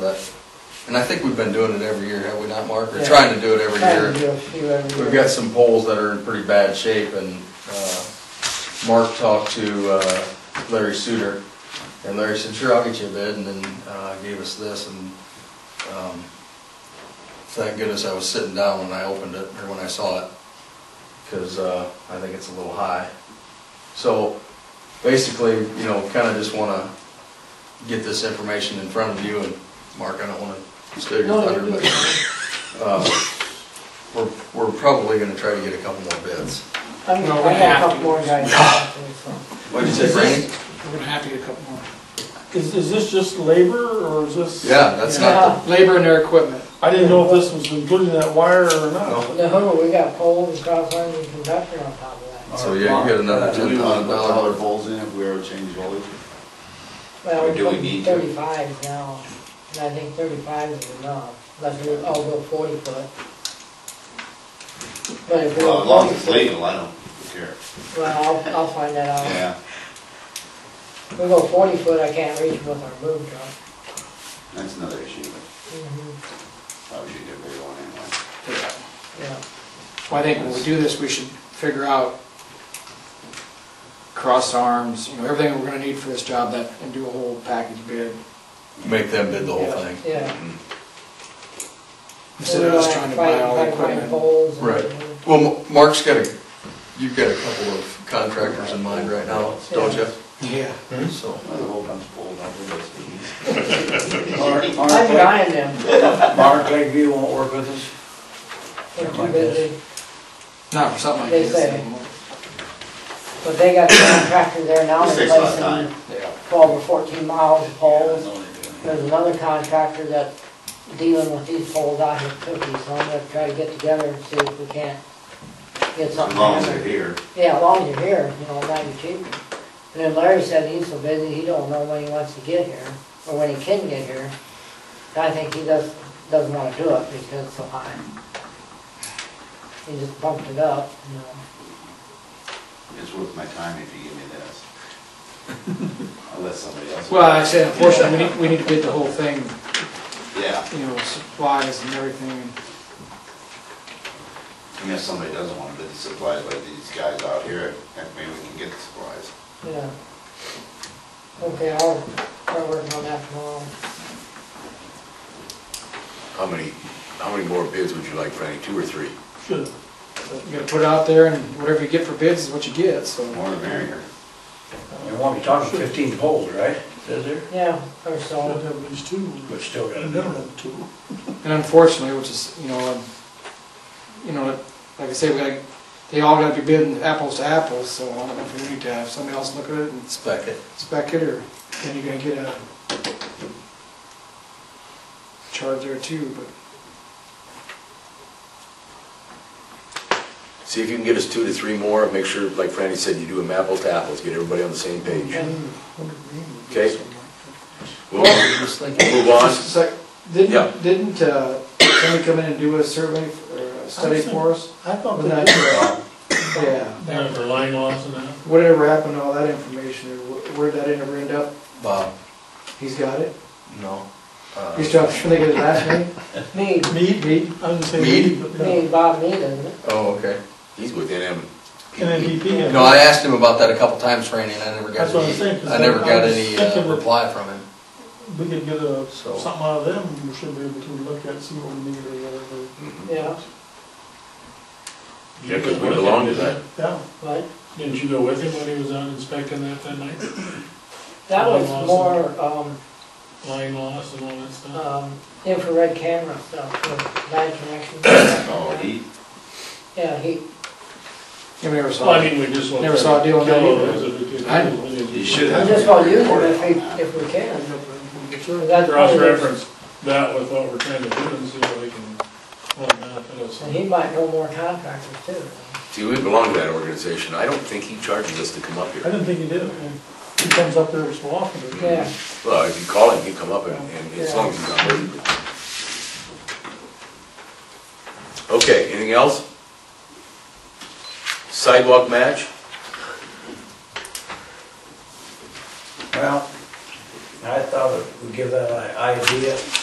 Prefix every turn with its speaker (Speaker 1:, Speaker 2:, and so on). Speaker 1: But- And I think we've been doing it every year, have we not, Mark? We're
Speaker 2: Yeah.
Speaker 1: trying to do it every
Speaker 2: Kind of
Speaker 1: year.
Speaker 2: do a few every
Speaker 1: We've
Speaker 2: year.
Speaker 1: got some poles that are in pretty bad shape and, uh, Mark talked to, uh, Larry Suter. And Larry said, sure, I'll get you a bid and then, uh, gave us this and, um, thank goodness I was sitting down when I opened it or when I saw it. Cause, uh, I think it's a little high. So basically, you know, kinda just wanna get this information in front of you and Mark, I don't wanna steal your
Speaker 2: No,
Speaker 1: thunder,
Speaker 2: you're
Speaker 1: but.
Speaker 2: good.
Speaker 1: Uh, We're, we're probably gonna try to get a couple more bids.
Speaker 2: I'm,
Speaker 3: No,
Speaker 2: I
Speaker 3: we
Speaker 2: have
Speaker 3: have
Speaker 2: a couple
Speaker 3: to.
Speaker 2: more guys. out there, so.
Speaker 1: What'd you say, Frank?
Speaker 3: We're gonna have to get a couple more. Is, is this just labor or is this?
Speaker 1: Yeah, that's not
Speaker 3: Labor and their equipment.
Speaker 4: I didn't know if this was including that wire or not.
Speaker 1: No.
Speaker 2: No, we got poles and cross lines and conductor on top of
Speaker 1: the,
Speaker 2: that.
Speaker 1: so yeah, you get another
Speaker 5: Do
Speaker 1: ten
Speaker 5: we want to
Speaker 1: thousand
Speaker 5: put taller
Speaker 1: dollar.
Speaker 5: poles in if we ever change voltage?
Speaker 2: Well,
Speaker 5: Or do we
Speaker 2: we're
Speaker 5: need to?
Speaker 2: thirty-five now, and I think thirty-five is enough, unless we all go forty foot. But if we
Speaker 5: Well,
Speaker 2: go
Speaker 5: as long as it's
Speaker 2: 40 foot-
Speaker 5: legal, I don't care.
Speaker 2: Well, I'll, I'll find that
Speaker 6: Uh-huh.
Speaker 2: out.
Speaker 5: Yeah,
Speaker 2: If we go forty foot, I can't reach with our boom truck.
Speaker 5: that's another issue, but
Speaker 2: Mhm,
Speaker 5: probably should get a bigger one anyway.
Speaker 2: Yeah,
Speaker 3: Well, I think when we do this, we should figure out cross arms, you know, everything we're gonna need for this job that, and do a whole package bid.
Speaker 1: Make them bid the whole thing.
Speaker 2: yeah.
Speaker 1: Mm-hmm.
Speaker 2: uh,
Speaker 3: Instead of us trying to buy all the equipment.
Speaker 2: Poles. and-
Speaker 1: Right. Well, Ma- Mark's got a, you've got a couple of contractors in mind right now, don't you?
Speaker 3: Yeah.
Speaker 1: So,
Speaker 5: Well, the whole bunch of poles out there, that's pretty easy.
Speaker 6: Mark,
Speaker 2: I'm
Speaker 6: Mark,
Speaker 2: buying them,
Speaker 6: Mark Lakeview won't work with us?
Speaker 2: they're too busy.
Speaker 3: Not for something like
Speaker 2: They
Speaker 3: this.
Speaker 2: say.
Speaker 3: anymore.
Speaker 2: But they got the contractor there now,
Speaker 5: This takes a lot of
Speaker 2: replacing
Speaker 5: time.
Speaker 3: Yeah.
Speaker 2: twelve or fourteen miles of poles.
Speaker 5: Yeah.
Speaker 2: There's another contractor that dealing with these poles out here cookies, so I'm gonna try to get together and see if we can't get
Speaker 5: As
Speaker 2: something.
Speaker 5: long as
Speaker 2: together.
Speaker 5: they're here.
Speaker 2: Yeah, as long as you're here, you know, it might be cheaper. And then Larry said he's so busy, he don't know when he wants to get here, or when he can get here. And I think he does, doesn't wanna do it because it's so high. He just bumped it up, you know.
Speaker 5: It's worth my time if you give me this. Unless somebody else.
Speaker 3: Well, I said, unfortunately, we need, we need to bid the whole thing,
Speaker 5: Yeah,
Speaker 3: you know, supplies and everything.
Speaker 5: I mean, if somebody doesn't want to bid the supplies like these guys out here, then maybe we can get the supplies.
Speaker 2: Yeah. Okay, I'll start working on that tomorrow.
Speaker 7: How many, how many more bids would you like, Franny, two or three?
Speaker 3: Should. You gotta put it out there and whatever you get for bids is what you get, so.
Speaker 5: The more the merrier.
Speaker 6: You won't be talking fifteen poles, right? Is there?
Speaker 2: Yeah, or
Speaker 4: I'd
Speaker 2: so.
Speaker 4: have at least two,
Speaker 6: But still
Speaker 4: a
Speaker 6: gotta be.
Speaker 4: minimum two.
Speaker 3: And unfortunately, which is, you know, um, you know, like I say, we gotta, they all gotta be bidding apples to apples, so I don't know if we need to have somebody else look at it and
Speaker 1: spec it.
Speaker 3: spec it, or then you're gonna get a charge there too, but
Speaker 7: See if you can get us two to three more, make sure, like Franny said, you do them apples to apples, get everybody on the same page. Okay. We'll
Speaker 1: Well, I'm just thinking,
Speaker 7: move on.
Speaker 3: It's like,
Speaker 7: Yeah.
Speaker 3: didn't, didn't uh, somebody come in and do a survey f- or a study for us?
Speaker 4: I thought
Speaker 3: Wasn't
Speaker 4: that,
Speaker 3: that- Yeah,
Speaker 8: Yeah, for line loss and that.
Speaker 3: whatever happened to all that information, or wh- where'd that ever end up?
Speaker 1: Bob,
Speaker 3: He's got it?
Speaker 1: no. uh,
Speaker 3: He's trying to get his last name?
Speaker 2: Me,
Speaker 4: meat,
Speaker 3: Mead?
Speaker 4: I didn't say
Speaker 1: Mead?
Speaker 4: meat, but uh,
Speaker 2: me,
Speaker 4: yeah.
Speaker 2: and Bob Mead, isn't it?
Speaker 1: Oh, okay.
Speaker 7: He's with NM.
Speaker 4: And then DP. had-
Speaker 1: No, I asked him about that a couple times, Franny, and I never got
Speaker 4: That's what I'm saying,
Speaker 1: any,
Speaker 4: 'cause
Speaker 1: I never
Speaker 4: I
Speaker 1: got
Speaker 4: was
Speaker 1: any
Speaker 4: thinking
Speaker 1: uh,
Speaker 4: that-
Speaker 1: reply from him.
Speaker 4: We could get a,
Speaker 1: So-
Speaker 4: something out of them, we should be able to look at, see what we need or whatever.
Speaker 2: Yeah,
Speaker 7: Yeah, 'cause we belong to that.
Speaker 4: Yeah,
Speaker 2: but
Speaker 8: Didn't you go with him when he was out inspecting that that night?
Speaker 2: that was
Speaker 8: Awesome.
Speaker 2: more, um,
Speaker 8: Line loss and all that
Speaker 3: Uh,
Speaker 8: stuff?
Speaker 2: um, infrared camera stuff, with night connection.
Speaker 5: Oh, he,
Speaker 2: Yeah, he,
Speaker 3: Yeah, we never
Speaker 8: Well,
Speaker 3: saw
Speaker 8: I
Speaker 3: it.
Speaker 8: mean, we just want.
Speaker 3: Never saw a deal on that either.
Speaker 5: he should
Speaker 2: we
Speaker 5: have.
Speaker 2: just gonna use it if we, if we can. That's probably the-
Speaker 8: Cross-reference that with what we're trying to do and see what we can, what benefit us.
Speaker 2: And he might know more contractors too.
Speaker 7: See, we belong to that organization. I don't think he charges us to come up
Speaker 4: I
Speaker 7: here.
Speaker 4: didn't think he did, he comes up there so often.
Speaker 2: Yeah,
Speaker 7: Well, if you call him, he'll come up and, and as long as he's not busy. Okay, anything else? Sidewalk match?
Speaker 6: Well, I thought that we'd give that an idea,